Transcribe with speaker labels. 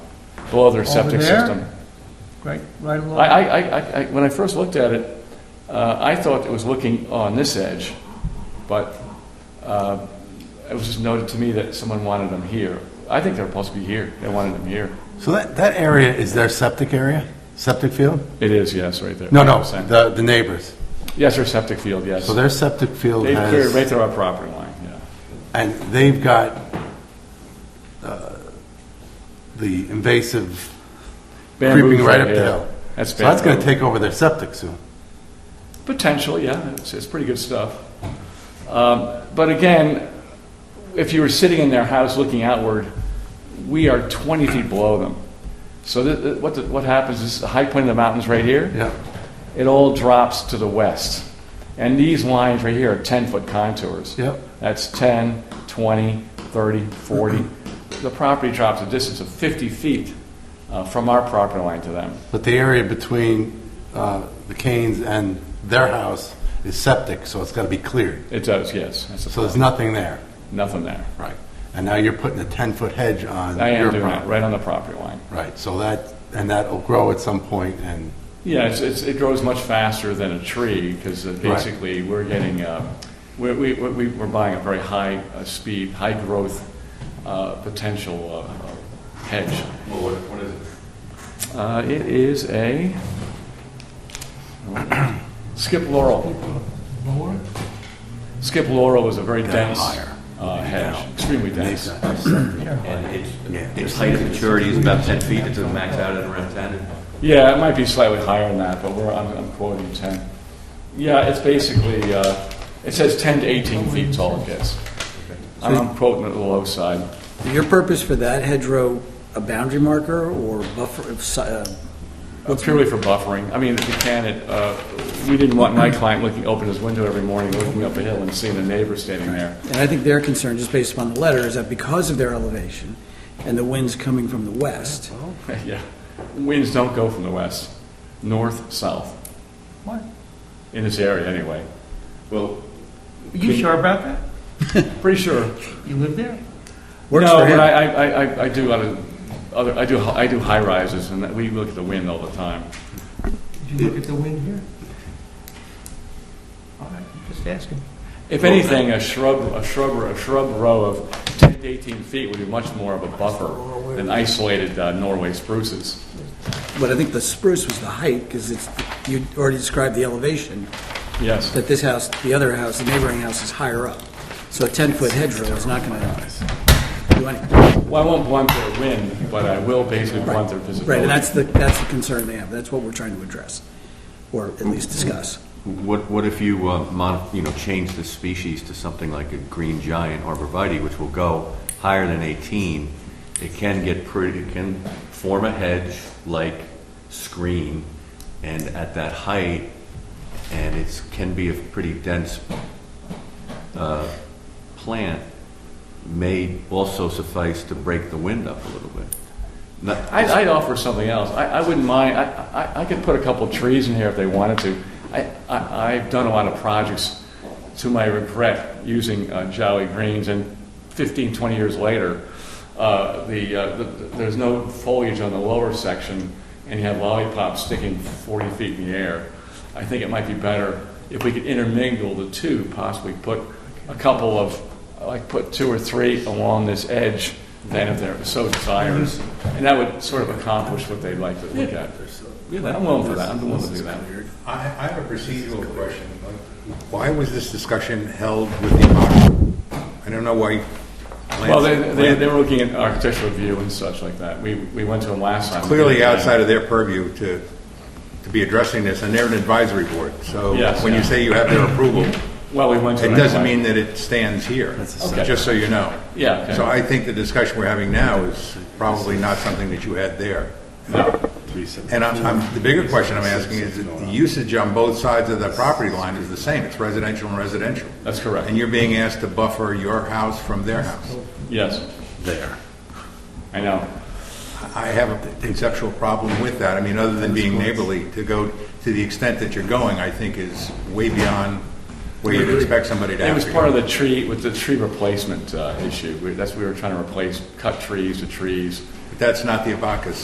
Speaker 1: below their
Speaker 2: Over
Speaker 1: septic
Speaker 2: there?
Speaker 1: system.
Speaker 2: right, right
Speaker 1: I,
Speaker 2: along.
Speaker 1: I, I- I, I, when I first looked at it, uh, I thought it was looking on this edge, but, uh, it was just noted to me that someone wanted them here. I think they're supposed to be here, they wanted them here.
Speaker 3: So that, that area is their septic area? Septic field?
Speaker 1: It is, yes, right there.
Speaker 3: No, no,
Speaker 1: 100%.
Speaker 3: the, the neighbors.
Speaker 1: Yes, their septic field, yes.
Speaker 3: So their septic field
Speaker 1: They've cleared right
Speaker 3: has,
Speaker 1: through our property line, yeah.
Speaker 3: and they've got uh, the invasive creeping
Speaker 1: Bamboo's
Speaker 3: right up the
Speaker 1: here.
Speaker 3: hill.
Speaker 1: That's
Speaker 3: So that's going to
Speaker 1: bamboo.
Speaker 3: take over their septic soon.
Speaker 1: Potentially, yeah, it's, it's pretty good stuff. Um, but again, if you were sitting in their house looking outward, we are 20 feet below them. So th- th- what, the, what happens is the high point of the mountains right here,
Speaker 3: Yeah.
Speaker 1: it all drops to the west. And these lines right here are 10 foot contours.
Speaker 3: Yep.
Speaker 1: That's 10, 20, 30, 40. the property drops a distance of 50 feet uh, from our property line to them.
Speaker 3: But the area between uh, the Canes and their house is septic, so it's got to be cleared.
Speaker 1: It does, yes. That's a
Speaker 3: So there's nothing there.
Speaker 1: Nothing there.
Speaker 3: Right. And now you're putting a 10-foot hedge on
Speaker 1: I am
Speaker 3: your
Speaker 1: doing that,
Speaker 3: property.
Speaker 1: right on the property line.
Speaker 3: Right, so that, and that'll grow at some point, and,
Speaker 1: Yeah, it's, it's, it grows much faster than a tree, because basically, we're getting, uh, we're, we, we- we're buying a very high uh, speed, high growth, uh, potential, uh, uh, hedge.
Speaker 4: Well, what, what is it?
Speaker 1: Uh, it is a, skip laurel. Skip laurel is a very dense,
Speaker 3: higher.
Speaker 1: uh, hedge, extremely dense.
Speaker 3: they've
Speaker 4: And it's,
Speaker 3: Yeah.
Speaker 4: its height of maturity is about 10 feet, it's maxed out at around 10.
Speaker 1: Yeah, it might be slightly higher than that, but we're, I'm I'm quoting 10. Yeah, it's basically, uh, it says 10 to 18 feet tall it gets. I'm I'm quoting it the low side. Uh,
Speaker 5: Your purpose for that hedgerow, a boundary marker or buffer, of si- uh,
Speaker 1: Uh, Purely for buffering. I mean, if you can, it, uh, we didn't want my client looking, open his window every morning, looking up a hill and seeing a neighbor standing there.
Speaker 5: and I think their concern, just based upon the letter, is that because of their elevation and the winds coming from the west,
Speaker 1: Yeah. Winds don't go from the west, north, south,
Speaker 2: What?
Speaker 1: in this area anyway.
Speaker 4: Well,
Speaker 2: You sure about that?
Speaker 1: Pretty sure.
Speaker 2: You live there?
Speaker 5: works
Speaker 1: no,
Speaker 5: for him.
Speaker 1: but I, I, I- I, I do other, other, I do, I do high rises, and that- we look at the wind all the time.
Speaker 2: Did you look at the wind here? All right, just asking.
Speaker 1: If anything, a shrub, a shrub, a shrub row of 10 to 18 feet would be much more of a buffer than isolated uh, Norway spruces.
Speaker 5: But I think the spruce was the height, because it's, you already described the elevation,
Speaker 1: Yes.
Speaker 5: that this house, the other house, the neighboring house is higher up. So a 10-foot hedgerow is not going to do anything.
Speaker 1: Well, I won't blunt their wind, but I will basically blunt their
Speaker 5: Right,
Speaker 1: visibility.
Speaker 5: and that's the, that's the concern they have. That's what we're trying to address, or at least discuss.
Speaker 4: what, what if you, uh, mod, you know, change the species to something like a green giant arborvitae, which will go higher than 18? It can get pretty, it can form a hedge-like screen, and at that height, and it's, can be a pretty dense uh, plant, may also suffice to break the wind up a little bit. Not-
Speaker 1: I'd, I'd offer something else. I, I wouldn't mind, I, I, I could put a couple trees in here if they wanted to. I, I, I've done a lot of projects, to my regret, using uh, Jolly Greens, and 15, 20 years later, uh, the, uh, the, there's no foliage on the lower section, and you have lollipops sticking 40 feet in the air. I think it might be better if we could intermingle the two, possibly put a couple of, like, put two or three along this edge, than if they're so desirous. And that would sort of accomplish what they'd like to look at. I'm willing for that, I'm willing to do that.
Speaker 6: I, I have a procedural question. Why was this discussion held with the auction? I don't know why.
Speaker 1: Well, they, they, they were looking at architectural view and such like that. We, we went to them last time.
Speaker 6: Clearly outside of their purview to, to be addressing this, and they're an advisory board. So
Speaker 1: Yes,
Speaker 6: when you
Speaker 1: yeah.
Speaker 6: say you have their approval,
Speaker 1: Well, we went to.
Speaker 6: it
Speaker 1: them
Speaker 6: doesn't
Speaker 1: anyway.
Speaker 6: mean that it stands here,
Speaker 1: Okay.
Speaker 6: just so you know.
Speaker 1: Yeah, okay.
Speaker 6: So I think the discussion we're having now is probably not something that you had there. And I'm, I'm, the bigger question I'm asking is, that the usage on both sides of the property line is the same, it's residential and residential.
Speaker 1: That's correct.
Speaker 6: And you're being asked to buffer your house from their house.
Speaker 1: Yes,
Speaker 3: There.
Speaker 1: I know.
Speaker 6: I have a conceptual problem with that, I mean, other than being neighborly, to go to the extent that you're going, I think is way beyond where you'd expect somebody to
Speaker 1: It
Speaker 6: have
Speaker 1: was
Speaker 6: to go.
Speaker 1: part of the tree, with the tree replacement uh, issue. We- That's, we were trying to replace cut trees to trees.
Speaker 6: That's not the Abacus